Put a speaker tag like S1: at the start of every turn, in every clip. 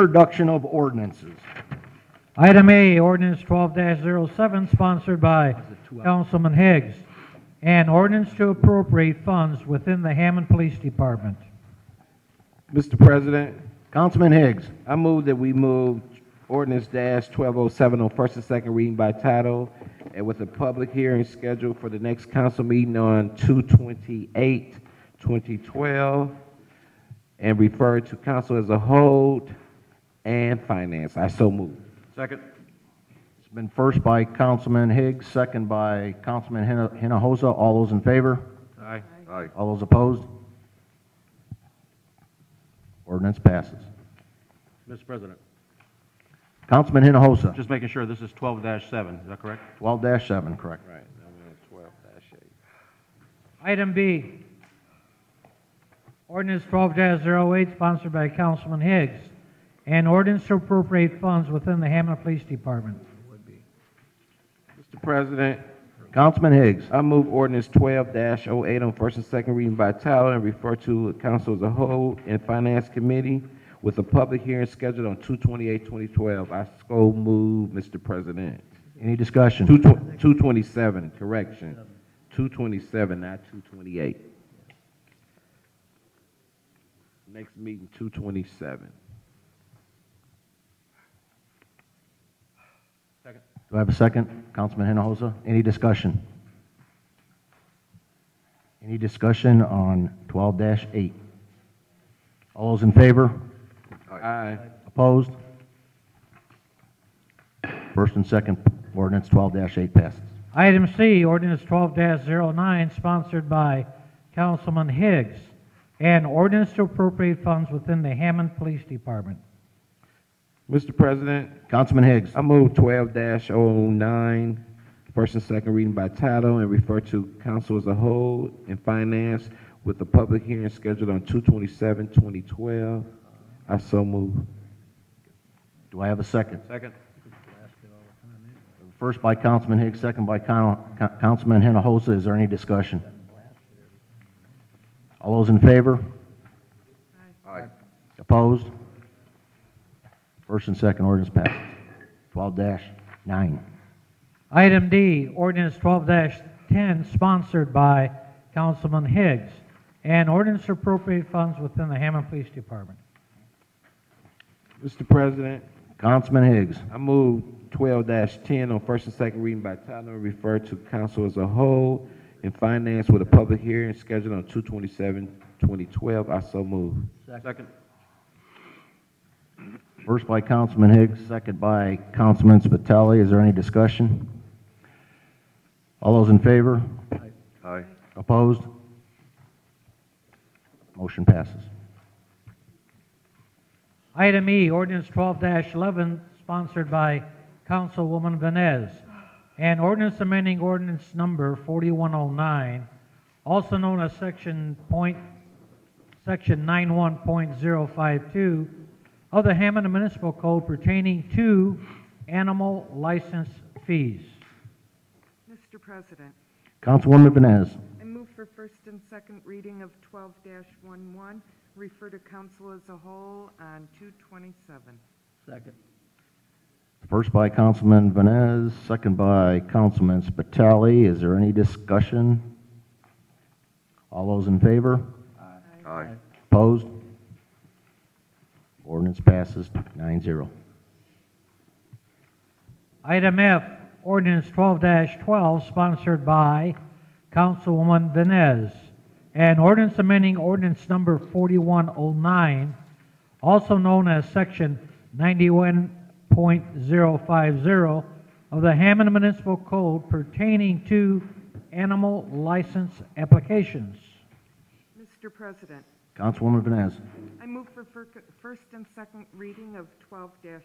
S1: Introduction of ordinances.
S2: Item A, ordinance twelve 7 sponsored by Councilman Higgs. An ordinance to appropriate funds within the Hammond Police Department.
S3: Mr. President,
S1: Councilman Higgs.
S3: I move that we move ordinance dash twelve oh seven on first and second reading by title and with a public hearing scheduled for the next council meeting on 228, 2012, and refer to council as a whole and finance. I so move.
S1: Second. It's been first by Councilman Higgs, second by Councilman Hina- Hinojosa. All those in favor?
S3: Aye.
S1: Aye. All those opposed? Ordinance passes.
S4: Mr. President,
S1: Councilman Hinojosa,
S4: just making sure this is twelve seven, is that correct?
S1: twelve dash seven, correct.
S3: Right, now we're on twelve dash eight.
S2: Item B, ordinance twelve 8 sponsored by Councilman Higgs. An ordinance to appropriate funds within the Hammond Police Department.
S3: Mr. President,
S1: Councilman Higgs.
S3: I move ordinance twelve 8 on first and second reading by title and refer to council as a whole and finance committee with a public hearing scheduled on 2012. I so move, Mr. President.
S1: Any discussion?
S3: Two tw- two twenty-seven, correction. Two twenty-seven, not two twenty-eight. Next meeting, two twenty-seven.
S1: Do I have a second? Councilman Hinojosa, any discussion? Any discussion on twelve dash eight? All those in favor?
S3: Aye.
S1: Opposed? First and second, ordinance twelve eight passes.
S2: Item C, ordinance twelve 9 sponsored by Councilman Higgs. An ordinance to appropriate funds within the Hammond Police Department.
S3: Mr. President,
S1: Councilman Higgs,
S3: I move twelve 9 first and second reading by title and refer to council as a whole and finance with a public hearing scheduled on 2012. I so move.
S1: do I have a second?
S4: Second.
S1: First by Councilman Higgs, second by Con- Con- Councilman Hinojosa. Is there any discussion? All those in favor?
S3: Aye.
S1: Opposed? First and second ordinance passes. Twelve nine.
S2: Item D, ordinance twelve ten sponsored by Councilman Higgs, and ordinance to appropriate funds within the Hammond Police Department.
S3: Mr. President,
S1: Councilman Higgs,
S3: I move twelve ten on first and second reading by title and refer to council as a whole and finance with a public hearing scheduled on 2012. I so move.
S4: Second.
S1: first by Councilman Higgs, second by Councilman Spitali. Is there any discussion? All those in favor?
S4: Aye.
S1: Opposed? Motion passes.
S2: Item E, ordinance twelve eleven sponsored by Councilwoman Venez, and ordinance amending ordinance number forty-one oh nine, also known as section point, section nine one point zero five two of the Hammond Municipal Code pertaining to animal license fees.
S5: Mr. President,
S1: Councilwoman Vines.
S5: I move for first and second reading of 12-11, refer to council as a whole on 227.
S1: First by Councilman Vines, second by Councilman Spitali. Is there any discussion? All those in favor?
S4: Aye.
S1: Opposed? Ordinance passes 9-0.
S2: Item F, ordinance twelve twelve sponsored by Councilwoman Venez. An ordinance amending ordinance number forty-one oh nine, also known as section ninety-one point zero five zero of the Hammond Municipal Code pertaining to animal license applications.
S5: Mr. President,
S1: Councilwoman Vines.
S5: I move for fir- first and second reading of 12-12,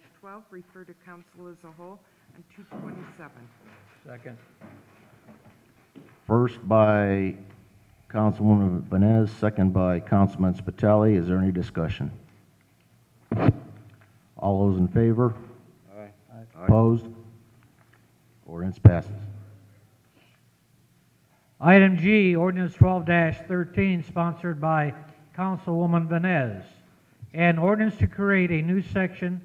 S5: refer to council as a whole on 227.
S1: First by Councilwoman Vines, second by Councilman Spitali. Is there any discussion? All those in favor? Opposed? Ordinance passes.
S2: Item G, ordinance twelve thirteen sponsored by Councilwoman Venez. and ordinance to create a new section